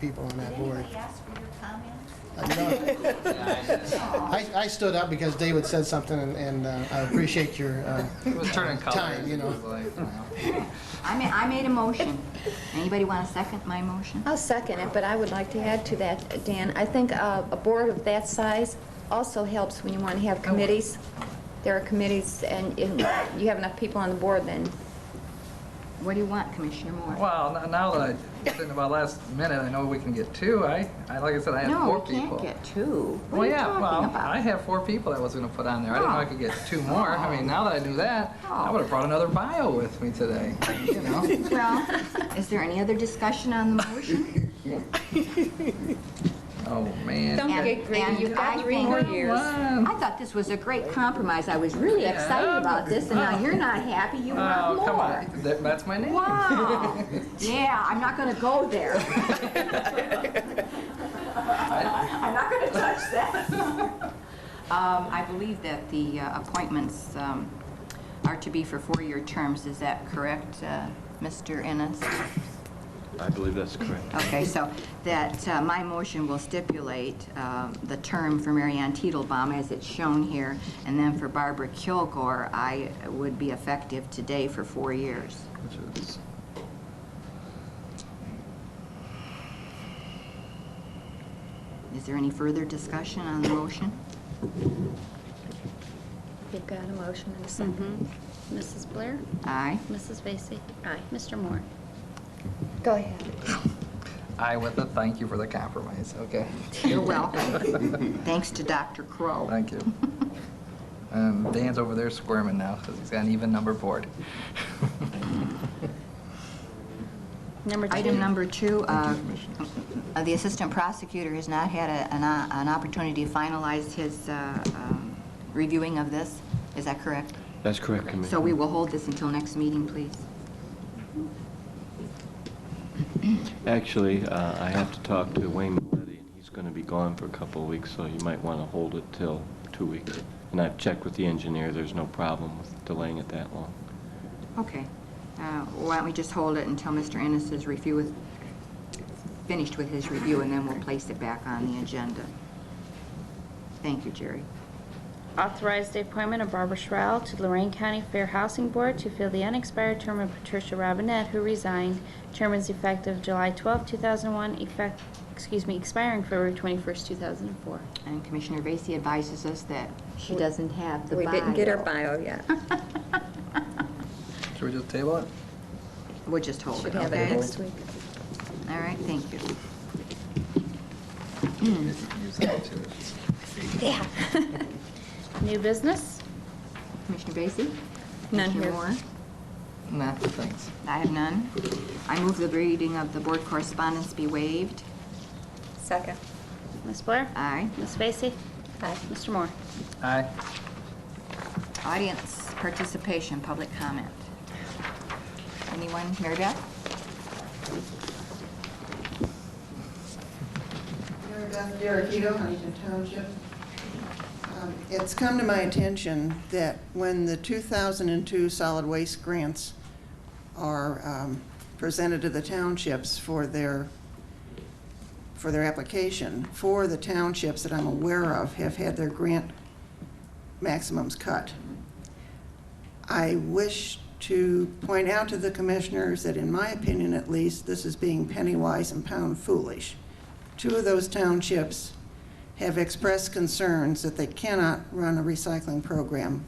people on that Did board. anybody ask for your comments? I know. I, I stood up because David said something and, and uh, I appreciate your, uh, It was turning colors. Time, you know. It was like, wow. I made, I made a motion. Anybody want to second my motion? I'll second it, but I would like to add to that, Dan. I think uh, a board of that size also helps when you want to have committees. There are committees, and if you have enough people on the board, then, What do you want, Commissioner Moore? Well, n- now that I, thinking about last minute, I know we can get two. I, I like I said, I had No, four we can't people. get two. What Well, are you yeah, talking well, I about? Oh. have four people I was gonna put on there. I didn't know I No. could get two more. I mean, now that I knew that, I No. would've brought another bio with me today, you know? Well, is there any other discussion on the motion? Oh, man. Don't And- get greedy, and you've I got three think- more years. One. I thought this was a great compromise. I was really excited Yeah. about this, and now you're not happy, you Oh, want come more. on. That- That's my name. Wow. Yeah, I'm not going to go there. I'm not going to touch that. Um, I believe that the uh, appointments um, are to be for four-year terms. Is that correct, uh, Mr. Ennis? I believe that's correct. Okay, so that, uh, my motion will stipulate um, the term for Marianne Titelbaum as it's shown here, and then for Barbara Kilgore, I would be effective today for four years. Which is- Is there any further discussion on the motion? You've got a motion and a second. Mrs. Blair? Aye. Mrs. Vacy? Aye. Mr. Moore? go ahead. I with a thank you for the compromise, okay? You're welcome. Thanks to Dr. Crow. Thank you. Um, Dan's over there squirming now because he's got an even number board. Number two. Item number two, uh, Commissioners. uh, the assistant prosecutor has not had a- an o- an opportunity to finalize his uh, um, reviewing of this. Is that correct? That's correct, Commissioner. So we will hold this until next meeting, please. Actually, uh, I have to talk to Wayne Maletti, and he's going to be gone for a couple of weeks, so you might want to hold it till two weeks. And I've checked with the engineer, there's no problem with delaying it that long. Okay. Uh, Why don't we just hold it until Mr. Ennis is review, is finished with his review, and then we'll place it back on the agenda. Thank you, Jerry. Authorize the appointment of Barbara Schrell to Lorraine County Fair Housing Board to fill the unexpired term of Patricia Robinette, who resigned. Term is effective July 12, 2001, effect, excuse me, expiring February 21st, 2004. And Commissioner Vacy advises us that she doesn't have the We bio. didn't get her bio yet. Should we just table it? We'll just hold Should it, have it okay? next week. All right, thank you. Use that too. New business? Commissioner Vacy? None Commissioner here. Moore? Nah, thanks. I have none. I move the reading of the board correspondence be waived. Second. Ms. Blair? Aye. Ms. Vacy? Aye. Mr. Moore? Aye. Audience participation, public comment. Anyone, Mary Beth? Mary Beth Derekito, Huntington Township. Um, It's come to my attention that when the 2002 solid waste grants are um, presented to the townships for their, for their application, four of the townships that I'm aware of have had their grant maximums cut. I wish to point out to the commissioners that, in my opinion at least, this is being penny wise and pound foolish. Two of those townships have expressed concerns that they cannot run a recycling program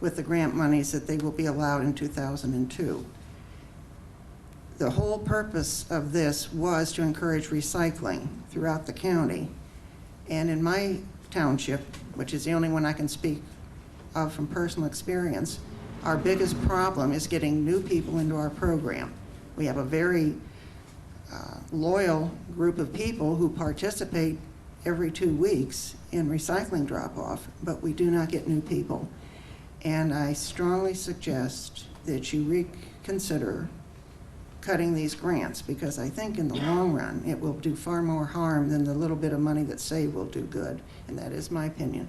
with the grant monies that they will be allowed in 2002. The whole purpose of this was to encourage recycling throughout the county. And in my township, which is the only one I can speak of from personal experience, our biggest problem is getting new people into our program. We have a very uh, loyal group of people who participate every two weeks in recycling drop-off, but we do not get new people. And I strongly suggest that you reconsider cutting these grants, because I think in the long run, it will do far more harm than the little bit of money that's saved will do good, and that is my opinion.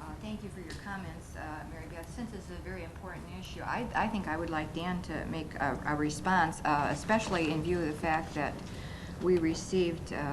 Uh, Thank you for your comments, uh, Mary Beth. Since this is a very important issue, I, I think I would like Dan to make a, a response, uh, especially in view of the fact that we received uh,